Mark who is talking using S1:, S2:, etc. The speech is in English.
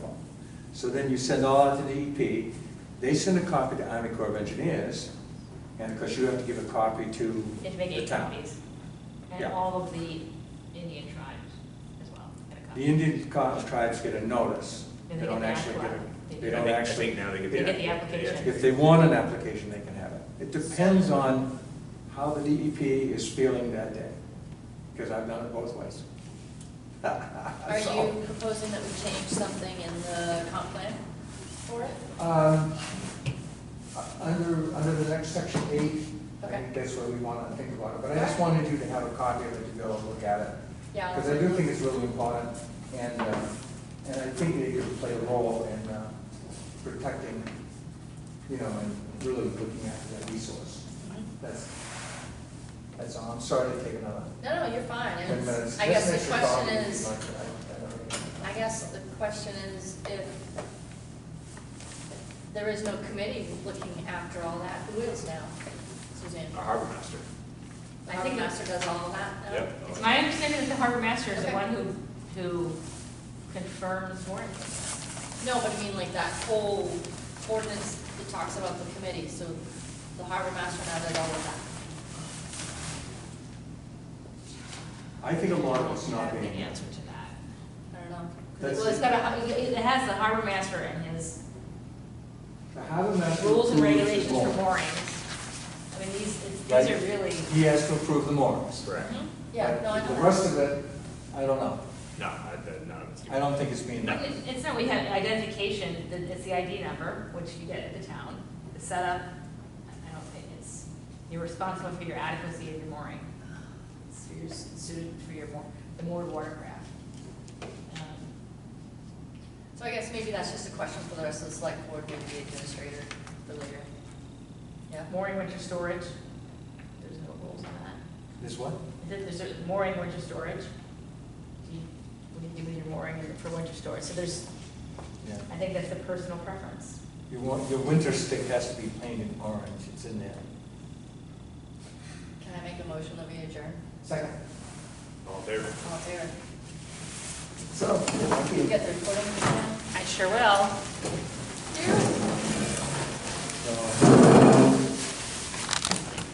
S1: So then you send all out to the EP, they send a copy to Army Corps of Engineers, and of course you have to give a copy to
S2: You have to make
S1: the
S2: eight
S1: town.
S2: copies. And
S1: Yeah.
S2: all of the Indian tribes as well get a
S1: The
S2: copy.
S1: Indian co- tribes get a notice, they
S2: And they get
S1: don't
S2: the
S1: actually
S2: actual
S1: get it,
S2: one. They
S1: they
S2: do.
S1: don't
S3: I think- I
S1: actually.
S3: think now they get the.
S2: They get the application.
S1: If they want an application, they can have it. It depends on how the DEP is feeling that day, because I've done it both ways.
S4: Are
S1: So,
S4: you proposing that we change something in the comp plan for it?
S1: um, Under, under the next section eight, I
S4: Okay.
S1: think that's where we want to think about it. But I just wanted you to have a copy of it to go and look at it.
S4: Yeah.
S1: Because I do think it's really important, and, uh, and I think they could play a role in uh, protecting, you know, and really looking after that resource.
S4: Mhm.
S1: That's, that's all, I'm sorry to take another
S4: No, no, you're fine.
S1: ten
S4: And
S1: minutes.
S4: I
S1: This
S4: guess
S1: makes
S4: the
S1: your
S4: question
S1: problem
S4: is,
S1: much, I- I don't really-
S4: I guess the question is if there is no committee looking after all that, who is now, Suzanne?
S3: A harbor master.
S4: I think Master does all of that now?
S3: Yep.
S2: It's my understanding that the harbor master is the
S4: Okay.
S2: one who, who confirms warrants.
S4: No, but I mean like that whole ordinance that talks about the committee, so the harbor master now does all of that.
S1: I think a lot of it's not
S2: I don't have the
S1: being,
S2: answer to that.
S4: I don't know. 'Cause
S1: That's-
S2: Well, it's got a, it it has the harbor master and his
S1: the harbor master.
S2: rules and
S1: approves the
S2: regulations for
S1: warrant.
S2: moorings. I mean, these, it's- these
S1: Right.
S2: are really.
S1: He has to approve the moorings.
S3: Correct.
S2: Mhm.
S4: Yeah,
S1: But
S4: no, I don't know.
S1: The rest of it, I don't know.
S3: No, I- that- none of it's.
S1: I don't think it's being done.
S2: It- It's not, we have identification, that it's the ID number, which you get at the town, it's set up, I don't think it's, you're responsible for your adequacy of your mooring. It's for your, suited for your moor, the moored watercraft. Um,
S4: So I guess maybe that's just a question for the rest of the select board, maybe the administrator for later. Yeah,
S2: Mooring winter storage, there's no rules on that.
S1: This what?
S2: Then there's a mooring winter storage. Do you- What do you do with your mooring in- for winter storage? So there's,
S1: Yeah.
S2: I think that's the personal preference.
S1: You want, your winter stick has to be painted orange, it's in there.
S4: can I make a motion that we adjourn?
S1: Second.
S3: All in favor?
S4: All in favor?
S1: So,
S4: You get the recording?
S2: I sure will.